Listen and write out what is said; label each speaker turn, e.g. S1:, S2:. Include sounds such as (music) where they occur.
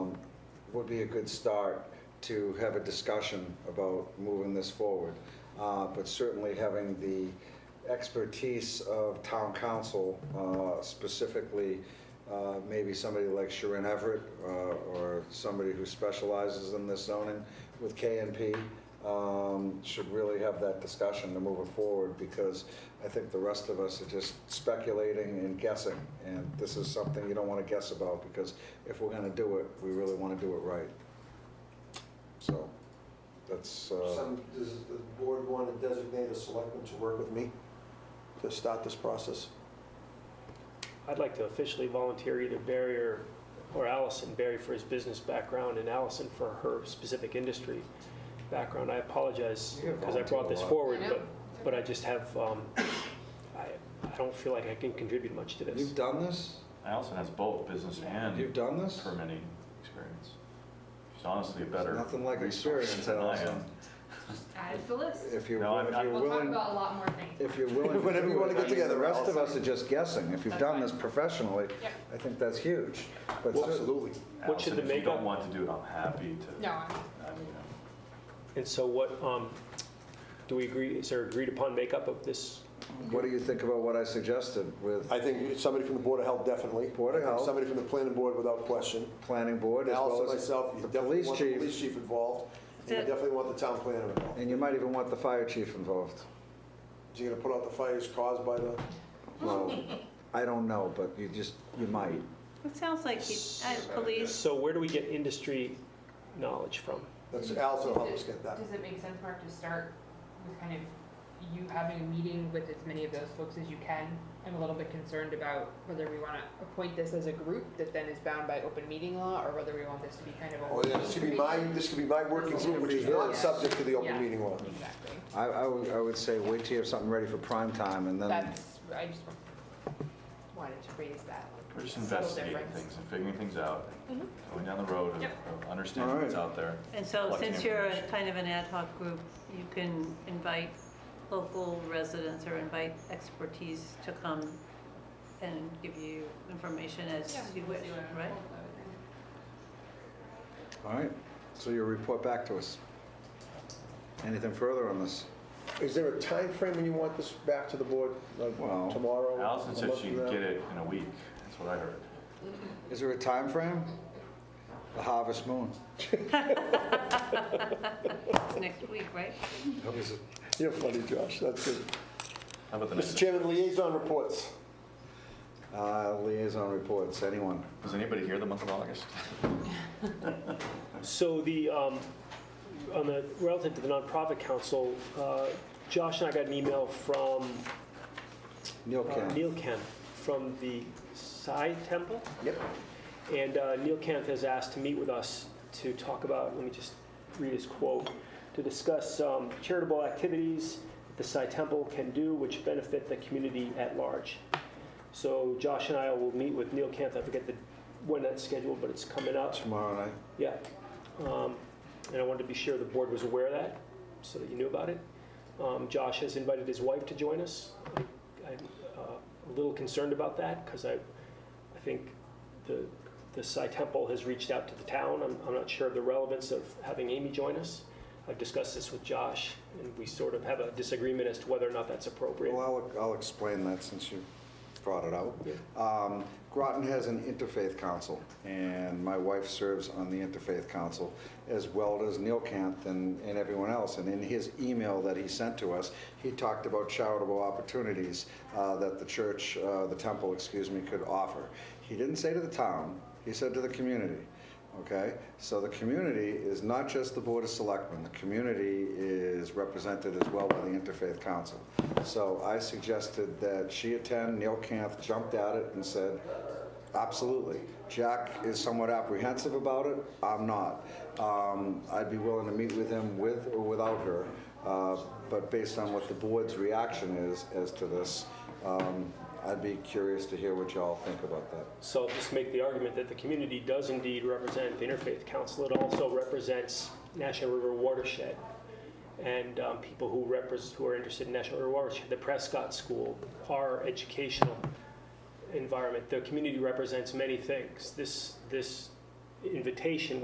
S1: would be a good start to have a discussion about moving this forward. Uh, But certainly having the expertise of town council, uh, specifically uh, maybe somebody like Sharon Everett uh, or somebody who specializes in this zoning with KNP um, should really have that discussion to move it forward because I think the rest of us are just speculating and guessing. And this is something you don't want to guess about because if we're going to do it, we really want to do it right. So that's, uh,
S2: Some, does the board want to designate a selectman to work with me to start this process?
S3: I'd like to officially volunteer either Barry or, or Allison, Barry for his business background and Allison for her specific industry background. I apologize
S1: You
S3: because I brought
S1: volunteer a
S3: this
S1: lot.
S3: forward,
S4: I know.
S3: but, but I just have, um, I, I don't feel like I can contribute much to this.
S1: you've done this?
S5: Allison has both business
S1: You've
S5: and
S1: done this?
S5: permitting experience. She's honestly a better.
S1: Nothing like
S5: resource
S1: experience,
S5: than I am.
S1: Allison.
S4: Add to the list.
S1: If you're,
S5: No, I'm-
S1: if
S5: I'm-
S1: you're
S4: We'll talk
S1: willing,
S4: about a lot more things.
S1: if you're
S2: (laughs)
S1: willing. to
S2: Whenever you
S1: do
S2: wanna
S1: it,
S2: get
S1: I mean,
S2: together,
S1: The rest of
S2: Allison.
S1: us are just guessing. If you've
S4: That's
S1: done
S4: fine.
S1: this professionally,
S4: Yep.
S1: I think that's huge. But
S2: Well,
S1: cer-
S2: Absolutely.
S3: What should
S5: Allison,
S3: the
S5: if you don't
S3: makeup-
S5: want to do it, I'm happy to.
S4: No, I'm-
S5: I mean,
S3: And so what, um, do we agree, is there agreed upon makeup of this?
S1: What do you think about what I suggested with
S2: I think somebody from the Board of Health, definitely.
S1: Board of
S2: I think
S1: Health.
S2: Somebody from the planning board, without question.
S1: planning board as
S2: Allison,
S1: well as
S2: myself, you
S1: the
S2: definitely
S1: police
S2: want the police
S1: chief?
S2: chief involved. and You
S4: That's it.
S2: definitely want the town planner involved.
S1: And you might even want the fire chief involved.
S4: (laughs)
S2: So you're going to put out the fires caused by the,
S1: Well, I don't know, but you just, you might.
S6: It sounds like you, uh, police,
S3: So where do we get industry knowledge from?
S2: that's Allison helped us get that.
S4: Does it make sense, Mark, to start with kind of you having a meeting with as many of those folks as you can? I'm a little bit concerned about whether we want to appoint this as a group that then is bound by open meeting law, or whether we want this to be kind of a.
S2: Oh, yeah, this could be my, this could be my working group, which is not subject to the open
S4: Yeah.
S2: meeting law.
S4: Exactly.
S1: I, I would, I would say wait till you have something ready for prime time and then,
S4: That's, I just wanted to raise that.
S5: We're just
S4: subtle
S5: investigating
S4: difference.
S5: things and figuring things out, going down the road of-
S4: Yep.
S5: of understanding what's
S1: Alright.
S5: out there.
S6: and so
S5: Collecting
S6: since you're a
S5: information.
S6: kind of an ad hoc group, you can invite local residents or invite expertise to come and give you information as you wish, right?
S1: all right? So you'll report back to us. Anything further on this?
S2: Is there a time frame when you want this back to the board, like
S1: Well,
S2: tomorrow?
S5: Allison
S2: a
S5: said
S2: month
S5: she'd
S2: from now?
S5: get it in a week, that's what I heard.
S1: Is there a time frame? The harvest moon.
S6: Next week, right?
S1: That was a-
S2: You're funny, Josh, that's good.
S5: How about the
S2: Mr.
S5: next?
S2: Chairman, liaison reports.
S1: Uh, Liaison reports, anyone?
S5: Was anybody here the month of August?
S3: So the, um, on the, relative to the nonprofit council, uh, Josh and I got an email from
S1: Neil
S3: uh,
S1: Kent.
S3: Neil Kemp from the Sai Temple.
S2: Yep.
S3: And uh, Neil Kemp has asked to meet with us to talk about, let me just read his quote, to discuss um, charitable activities that the Sai Temple can do which benefit the community at large. So Josh and I will meet with Neil Kemp. I forget the, when that's scheduled, but it's coming up.
S1: Tomorrow night.
S3: Yeah. Um, And I wanted to be sure the board was aware of that, so that you knew about it. Um, Josh has invited his wife to join us. I- I'm uh, a little concerned about that, because I, I think the, the Sai Temple has reached out to the town. I'm, I'm not sure of the relevance of having Amy join us. I've discussed this with Josh, and we sort of have a disagreement as to whether or not that's appropriate.
S1: Well, I'll, I'll explain that since you brought it up.
S3: Yeah.
S1: Um, Groton has an interfaith council, and my wife serves on the interfaith council, as well as Neil Kant and, and everyone else. And in his email that he sent to us, he talked about charitable opportunities uh, that the church, uh, the temple, excuse me, could offer. He didn't say to the town, he said to the community. Okay, so the community is not just the Board of Selectmen, the community is represented as well by the Interfaith Council. So I suggested that she attend, Neil Camp jumped at it and said, absolutely. Jack is somewhat apprehensive about it, I'm not. Um, I'd be willing to meet with him with or without her, uh, but based on what the board's reaction is as to this, um, I'd be curious to hear what y'all think about that.
S3: So I'll just make the argument that the community does indeed represent the Interfaith Council. It also represents National River Watershed and um, people who repres who are interested in National River Watershed, the Prescott School, our educational environment. The community represents many things. This, this invitation